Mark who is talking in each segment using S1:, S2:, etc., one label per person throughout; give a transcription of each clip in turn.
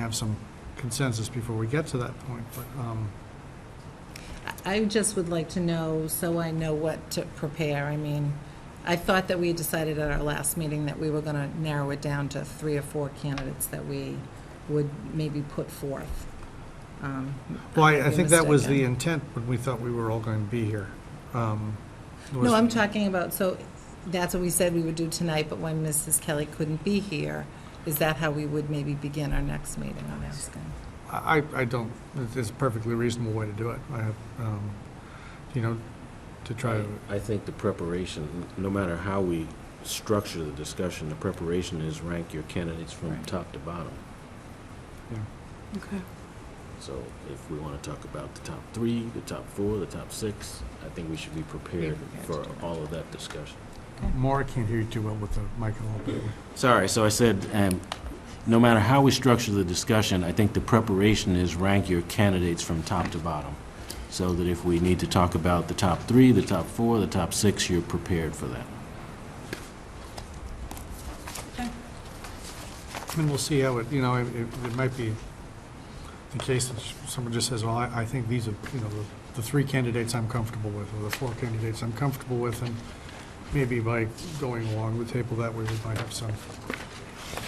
S1: have some consensus before we get to that point, but, um,
S2: I just would like to know, so I know what to prepare. I mean, I thought that we decided at our last meeting that we were going to narrow it down to three or four candidates that we would maybe put forth. Um,
S1: well, I,
S2: could
S1: I
S2: be
S1: think that was the
S2: mistaken.
S1: intent when we thought we were all going to be here. Um, was-
S2: No, I'm talking about, so that's what we said we would do tonight, but when Mrs. Kelly couldn't be here, is that how we would maybe begin our next meeting, I'm asking?
S1: I, I don't, it's a perfectly reasonable way to do it. I have, um, you know, to try to,
S3: I think the preparation, no matter how we structure the discussion, the preparation is rank your candidates from
S2: Right.
S3: top to bottom.
S4: Okay.
S3: So if we want to talk about the top three, the top four, the top six, I think we should be prepared
S2: prepared to
S3: for
S2: do that.
S3: all of that discussion.
S1: Maura can't hear you too well with the mic a little bit.
S3: Sorry, so I said, um, no matter how we structure the discussion, I think the preparation is rank your candidates from top to bottom. So that if we need to talk about the top three, the top four, the top six, you're prepared for that.
S1: And we'll see how it, you know, it, it it might be the case that someone just says, well, I, I think these are, you know, the- the three candidates I'm comfortable with, or the four candidates I'm comfortable with, and maybe by going along the table that way, we might have some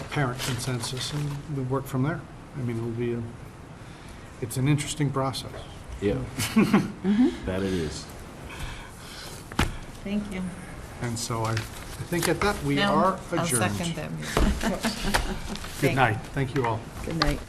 S1: apparent consensus, and we work from there. I mean, it'll be, a it's an interesting process.
S3: Yeah. That it is.
S2: Thank you.
S1: And so I, I think at that, we
S2: No,
S1: are
S2: I'll second
S1: adjourned.
S2: them.
S1: Good night. Thank you all.
S4: Good night.